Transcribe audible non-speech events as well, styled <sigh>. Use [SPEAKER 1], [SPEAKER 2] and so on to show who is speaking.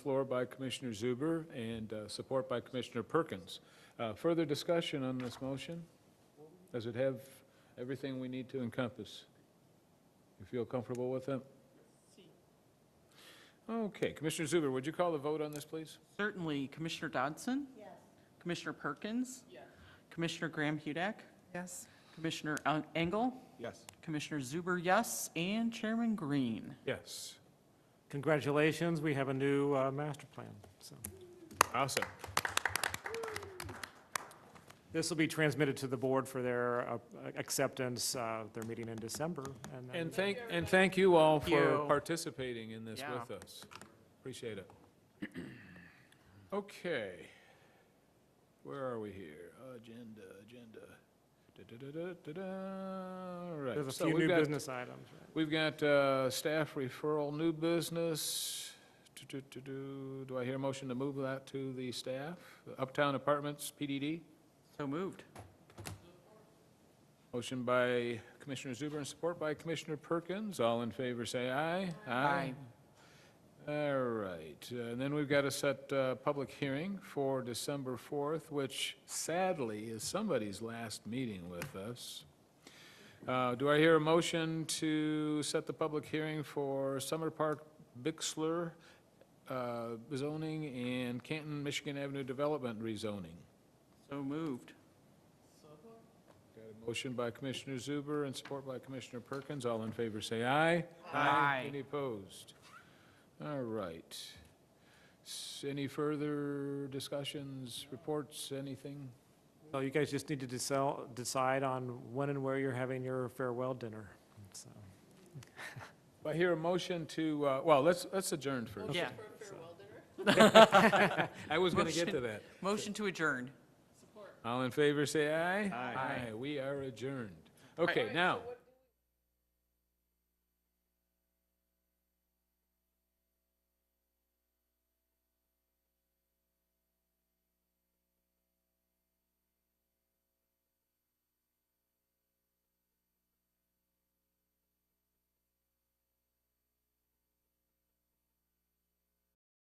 [SPEAKER 1] Floor by Commissioner Zuber and uh, support by Commissioner Perkins. Uh, Further discussion on this motion? Does it have everything we need to encompass? You feel comfortable with it? Okay, Commissioner Zuber, would you call the vote on this, please?
[SPEAKER 2] Certainly. Commissioner Dodson? Yes. Commissioner Perkins? Yes. Commissioner Graham Hudak?
[SPEAKER 3] Yes.
[SPEAKER 2] Commissioner Eng- Engel?
[SPEAKER 4] Yes.
[SPEAKER 2] Commissioner Zuber, yes, and Chairman Green.
[SPEAKER 1] Yes.
[SPEAKER 5] Congratulations, we have a new uh, master plan, so.
[SPEAKER 1] Awesome.
[SPEAKER 5] This will be transmitted to the board for their uh, acceptance, uh, their meeting in December. then-
[SPEAKER 1] And thank, and thank you all
[SPEAKER 2] Thank
[SPEAKER 1] for
[SPEAKER 2] you.
[SPEAKER 1] participating in this
[SPEAKER 2] Yeah.
[SPEAKER 1] with us. Appreciate it. <clears throat> Okay. Where are we here? Agenda, agenda. Da-da-da-da-da-da. All right.
[SPEAKER 5] There's a
[SPEAKER 1] so
[SPEAKER 5] few
[SPEAKER 1] we've
[SPEAKER 5] new
[SPEAKER 1] got-
[SPEAKER 5] business items, right?
[SPEAKER 1] We've got uh, staff referral, new business. Do, do, do, do. Do I hear a motion to move that to the staff? Uptown Apartments, PDD.
[SPEAKER 2] So moved.
[SPEAKER 1] Motion by Commissioner Zuber and support by Commissioner Perkins. All in favor, say aye. All right, uh, and then we've got to set a public hearing for December 4th, which sadly is somebody's last meeting with us. Uh, Do I hear a motion to set the public hearing for Summer Park Bixler uh, zoning and Canton, Michigan Avenue Development rezoning?
[SPEAKER 2] So moved.
[SPEAKER 1] Got a motion by Commissioner Zuber and support by Commissioner Perkins. All in favor, say aye.
[SPEAKER 2] Aye.
[SPEAKER 1] Any opposed? All right. S- Any further discussions, reports, anything?
[SPEAKER 5] So you guys just need to decel- decide on when and where you're having your farewell dinner, so.
[SPEAKER 1] I hear a motion to, uh, well, let's, let's adjourn first.
[SPEAKER 2] Yeah.
[SPEAKER 1] I was going to get to that.
[SPEAKER 2] Motion to adjourn.
[SPEAKER 1] All in favor, say aye. Aye. We are adjourned. Okay, now.